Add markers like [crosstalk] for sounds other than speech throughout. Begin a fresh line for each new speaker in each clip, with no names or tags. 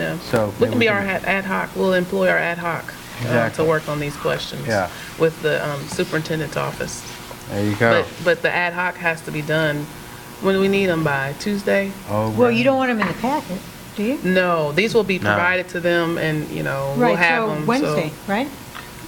on.
So
We
maybe
can
we
be our ad
can-
ad hoc, we'll employ our ad hoc uh, to
Exactly.
work on these questions.
Yeah.
With the um, superintendent's office.
There you go.
But, but the ad hoc has to be done, when do we need them by, Tuesday?
Oh,
Well, you don't want them in the packet, do you?
No, these will be
No.
provided to them and, you know, we'll
Right,
have
so
them.
Wednesday, right?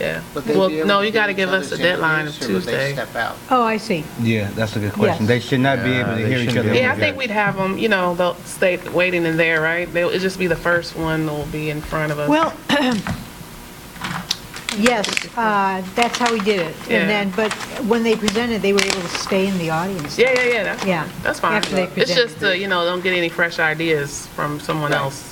Yeah.
Would they
Well,
be able
no,
to
you
do
got to
each
give us a
other's
deadline of
interviews, or would they
Tuesday.
step out?
Oh, I see.
Yeah, that's a good question.
Yes.
They should not be
Yeah,
able to
they
hear each
shouldn't
other.
be
Yeah, I
Yeah.
think we'd have them, you know, they'll stay waiting in there, right? They'll, it'll just be the first one that'll be in front of us.
Well, [clears throat] yes, uh, that's how we did it.
Yeah.
And then, but when they presented, they were able to stay in the audience.
Yeah, yeah, yeah, that's
Yeah,
fine. That's fine.
after they
It's
present.
just, uh, you know, don't get any fresh ideas from someone else.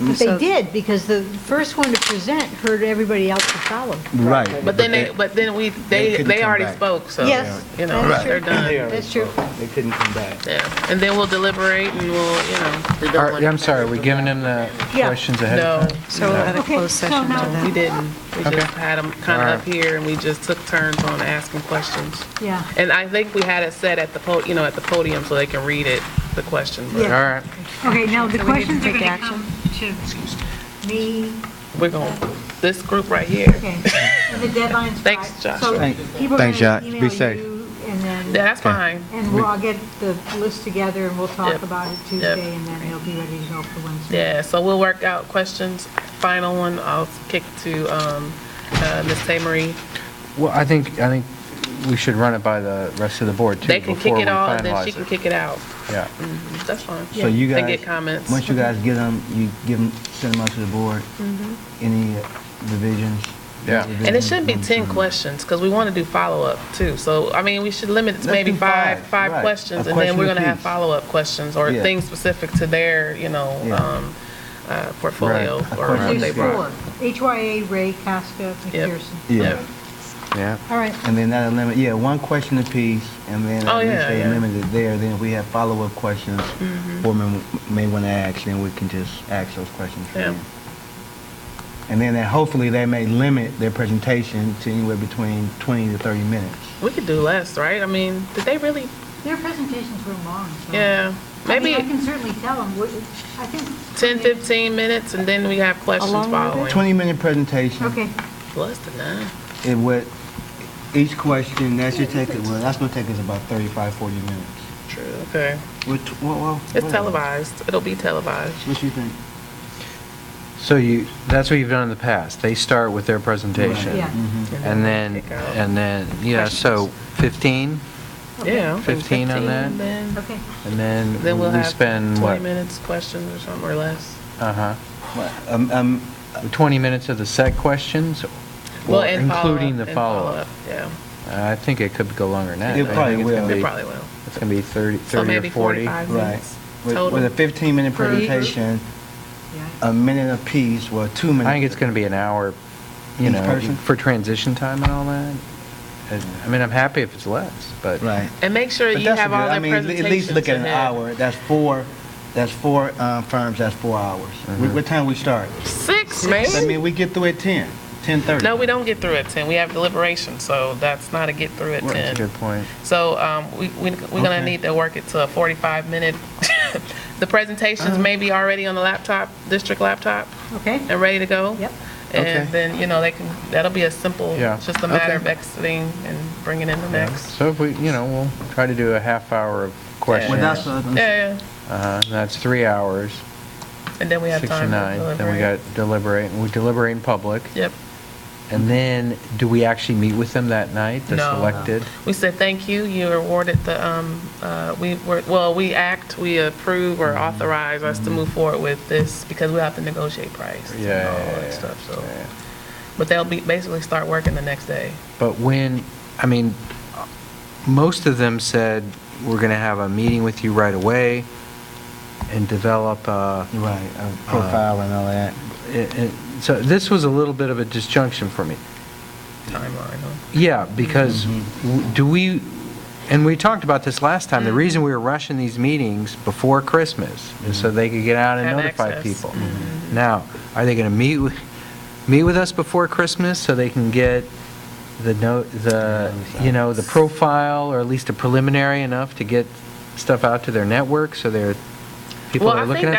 But they
Mm, So-
did, because the first one to present heard everybody else to follow.
Right.
But then they, but then we, they,
couldn't
they
come
already
back.
spoke, so,
Yes,
you know,
that's
they're
true.
done.
That's true.
They couldn't come back.
Yeah, and then we'll deliberate and we'll, you know,
They don't
Are-
want
I'm
to
sorry, are
have
we
to
giving
go
them the
Yeah.
questions ahead
no,
of time?
So we'll have a
Okay,
closed
so
session to
now-
that.
we didn't. We
Okay.
just had them kind
All
of
right.
up here and we just took turns on asking questions.
Yeah.
And I think we had it set at the po, you know, at the podium so they can read it, the question. but
Yeah.
All right,
Okay, now the
Do we need to
questions are
take
going to
action?
come to me.
We're going, this group right here. [laughs]
Okay. And the deadline's Friday.
Thanks, Joshua.
Thank-
So people are
thanks,
going
Josh.
to
Be
email you,
safe.
and
Yeah,
then,
that's fine.
and we'll, I'll get the list together, and we'll talk
Yep.
about it Tuesday, and then it'll be ready to go for Wednesday.
Yeah, so we'll work out questions. Final one, I'll kick to um, uh, Ms. Tamery.
well, I think, I think we should run it by the rest of the board, too,
They can
before
kick
we
it all, and then
finalize
she
it.
can kick Mm. it out.
Yeah,
That's fine.
So you guys.
And get comments.
Once you guys get them, you give them, send them out to the board.
Mm-hmm.
Any uh, revisions?
Yeah.
And it should be 10 questions, because we want to do follow-up, too. So, I mean, we should limit it to
Let's
maybe
do
five,
five,
five
right.
questions,
A
and then
question
we're going to have
apiece.
follow-up questions or
Yeah.
things specific to their, you know,
Yeah.
um, uh, portfolio
A
or
question
what they
There's
brought.
four, HYA, Ray, Casca, McPherson.
Yeah.
yeah.
All right,
And then that'll limit, yeah, one question apiece, and then
Oh,
at least
yeah,
they
yeah. Mm-hmm.
limit it there. Then if we have follow-up questions, board member may want to ask, then we can just ask those questions. for
Yeah.
them. And then that hopefully they may limit their presentation to anywhere between 20 to 30 minutes.
We could do less, right? I mean, did they really,
their presentations were long, so.
yeah,
I mean,
maybe
I can certainly tell them, what- I think.
10, 15 minutes, and then we have questions
Along with it?
following.
20-minute presentation.
Okay,
Less than that.
It would, each question, that should take, well, that's gonna take us about 35, 40 minutes.
True, okay.
What, what- what?
It's
what-
televised. It'll be televised.
What you think?
So you, that's what you've done in the past. They start with their presentation.
yeah.
Mm-hmm.
And then,
Mm-hmm. Kick out.
and then, yeah, so 15,
Yeah. I think
15 on that?
then-
Okay.
and then
Then we'll
we
have
spend,
20
what?
minutes, questions or something, or less.
Uh-huh.
Um, um,
20 minutes of the set questions,
Well,
or
and follow-up,
including the
and
follow-up? Uh,
Yeah,
I think it could go longer than that.
It
I think
probably
it's gonna
will.
it
be-
probably will.
It's going to be 30
So
30
maybe
or 40.
45
Right.
minutes
With with a
total.
15-minute
Per each?
presentation, a minute apiece, well, two minutes.
I think it's going to be an hour, you
Each
know,
person?
for transition time and all that. And- I mean, I'm happy if it's less, but.
Right.
And make sure
But
you
that's
have
good.
all
I
their
mean, at
presentations.
least look at an
ahead.
hour, that's four, that's four uh, firms, that's four hours.
Mm-hmm.
Wh- What time we start?
Six,
I
man?
mean, we get through at 10, 10:30.
No, we don't get through at 10. We have deliberation, so that's not a get through at
Well, That's a
10.
good point.
So um, we, we- we're gonna
Okay.
need to work it to a 45-minute. [laughs] The presentations
Uh-huh.
may be already on the laptop, district laptop,
Okay,
and ready to go.
yep.
And
Okay.
then, you know, they can, that'll be a simple,
Yeah.
it's just a matter
Okay.
of exiting and bringing in the next.
So if we, you know, we'll try to do a half hour of questions.
Well, that's, uh,
Yeah, yeah.
Uh, and That's three hours,
And then we have
six
time to
to nine. Then we got
deliberate.
deliberate, we deliberate in public.
Yep.
And then, do we actually meet with them that night, the
No.
selected?
We said, thank you, you awarded the, um, uh, we were, well, we act, we approve
Mm-hmm.
or authorize us to move forward with this because we have to negotiate price and
Yeah,
all
yeah,
that
yeah,
stuff, so.
yeah.
But they'll be, basically start working the next day.
But when, I mean, most of them said, we're going to have a meeting with you right away and develop a,
Right, uh, profile and all that.
it- it- so this was a little bit of a disjunction for me.
Timeline, huh?
Yeah, because w- do we, and we talked about this last time, the
Mm-hmm.
reason we were rushing these meetings before Christmas is so they could get out and
Have
notify
access. Mm-hmm.
people. Now, are they going to meet, wi- meet with us before Christmas so they can get the note, the, you know, the profile or at least a preliminary enough to get stuff out to their network so their people
Well,
that
I
are looking
think
at